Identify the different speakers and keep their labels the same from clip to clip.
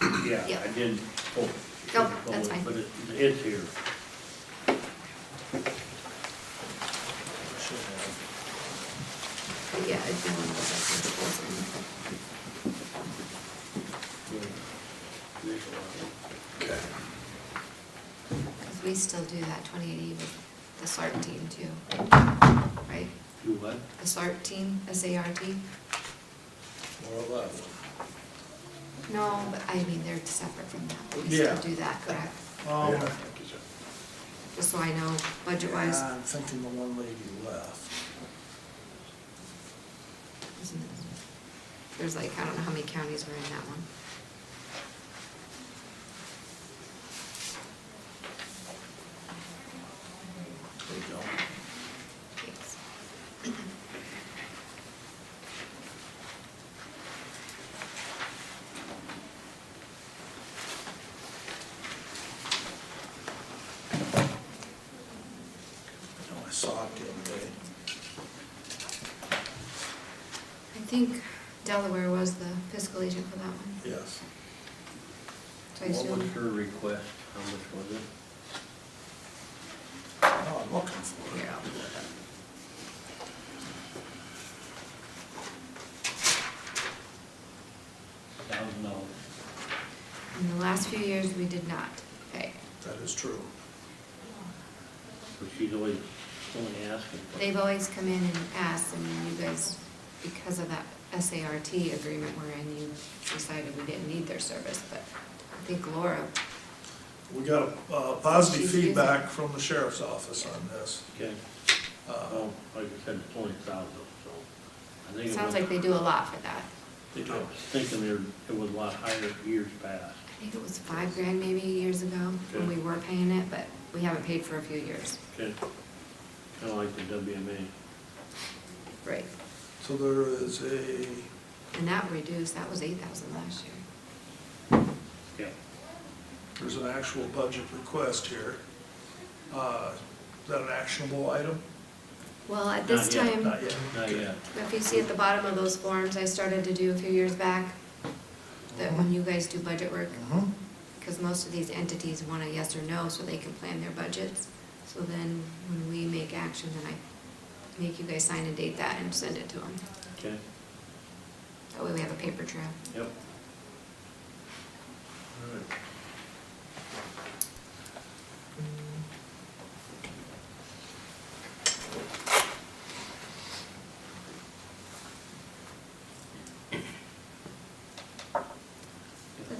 Speaker 1: yeah,
Speaker 2: Yeah.
Speaker 1: I didn't. oh,
Speaker 2: No, that's fine.
Speaker 1: But it, it's here.
Speaker 2: Yeah, it's been one of those.
Speaker 3: Okay.
Speaker 2: Because we still do that twenty eighty with the SART team too, right?
Speaker 1: Do what?
Speaker 2: The SART team, S-A-R-T?
Speaker 3: More left.
Speaker 2: No, but I mean, they're separate from that, but we
Speaker 4: Yeah.
Speaker 2: still do that, correct?
Speaker 4: Um,
Speaker 3: Yeah.
Speaker 2: Just so I know budget-wise,
Speaker 4: yeah, I'm thinking the one lady left.
Speaker 2: isn't it? There's like, I don't know how many counties were in that one.
Speaker 4: There you go.
Speaker 2: Thanks.
Speaker 4: I know I saw it the other day.
Speaker 2: I think Delaware was the fiscal agent for that one.
Speaker 4: Yes.
Speaker 2: So I
Speaker 1: What was
Speaker 2: assume,
Speaker 1: her request? How much was it?
Speaker 4: Oh, I'm looking for it.
Speaker 2: here, I'll pull it up.
Speaker 1: Thousand dollars.
Speaker 2: In the last few years, we did not pay.
Speaker 4: That is true.
Speaker 1: But she's always only asking. for-
Speaker 2: They've always come in and asked, and then you guys, because of that SART agreement we're in, you decided we didn't need their service, but I think Laura,
Speaker 4: We got uh, positive
Speaker 2: She's using-
Speaker 4: feedback from the sheriff's office on this.
Speaker 1: Okay,
Speaker 4: Uh,
Speaker 1: well, like I said, it's only thousand, so. I think
Speaker 2: it
Speaker 1: it
Speaker 2: sounds
Speaker 1: was-
Speaker 2: like they do a lot for that.
Speaker 4: They
Speaker 1: I
Speaker 4: do.
Speaker 1: was thinking there, it was a lot higher years past.
Speaker 2: I think it was five grand maybe years ago, when we were paying it, but we haven't paid for a few years.
Speaker 1: Okay. Kinda like the WMA.
Speaker 2: Right.
Speaker 4: So there is a,
Speaker 2: And that reduced, that was eight thousand last year.
Speaker 1: Yeah.
Speaker 4: there's an actual budget request here. Uh, Is that an actionable item?
Speaker 2: Well, at this
Speaker 1: Not yet,
Speaker 2: time.
Speaker 4: Not yet.
Speaker 1: Not yet.
Speaker 2: If you see at the bottom of those forms I started to do a few years back, that when you guys do budget work,
Speaker 4: Mhm.
Speaker 2: because most of these entities want a yes or no so they can plan their budgets. So then when we make action, then I make you guys sign and date that and send it to them.
Speaker 1: Okay,
Speaker 2: That way we have a paper trail.
Speaker 1: yep.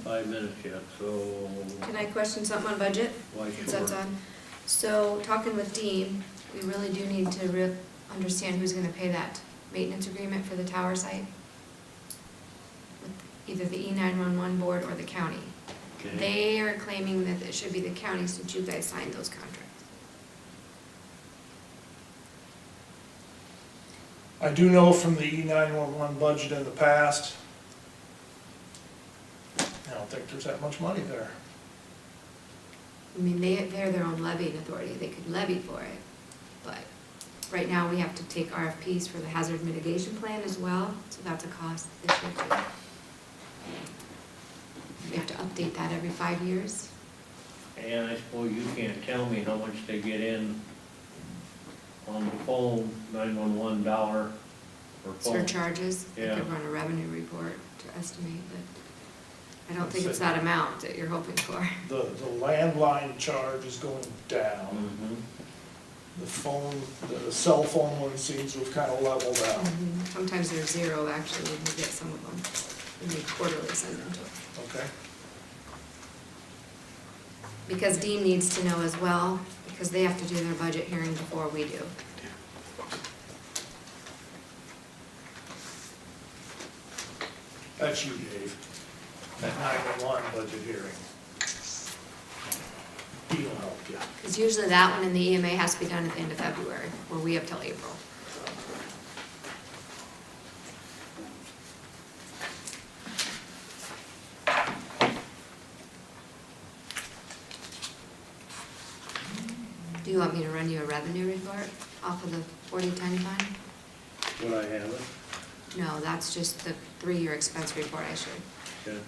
Speaker 1: Five minutes yet, so
Speaker 2: Can I question something on budget?
Speaker 1: why
Speaker 2: Since that's
Speaker 1: short?
Speaker 2: on. So talking with Dean, we really do need to re- understand who's gonna pay that maintenance agreement for the tower site. with Either the E nine-one-one board or the county.
Speaker 1: Okay.
Speaker 2: They are claiming that it should be the county since you guys signed those contracts.
Speaker 4: I do know from the E nine-one-one budget in the past, I don't think there's that much money there.
Speaker 2: I mean, they, they're their own levying authority, they could levy for it, but right now we have to take RFPs for the hazard mitigation plan as well, so that's a cost this year too. We have to update that every five years.
Speaker 1: And I suppose you can't tell me how much they get in on the phone, nine-one-one dollar for phone.
Speaker 2: surcharges. They
Speaker 1: Yeah.
Speaker 2: could run a revenue report to estimate, but I don't think it's that amount that you're hoping for.
Speaker 4: The, the landline charge is going down.
Speaker 1: Mhm.
Speaker 4: The phone, the cell phone one seems to have kind of leveled out.
Speaker 2: Sometimes they're zero, actually, when we get some of them, and they quarterly send them to us.
Speaker 4: Okay,
Speaker 2: Because Dean needs to know as well, because they have to do their budget hearing before we do.
Speaker 4: that's you, Dave. That nine-one-one budget hearing. He'll help you.
Speaker 2: Because usually that one and the EMA has to be done at the end of February, where we have till April. Do you want me to run you a revenue report off of the forty-ten fund?
Speaker 1: Would I have it?
Speaker 2: No, that's just the three-year expense report I should.
Speaker 1: Okay.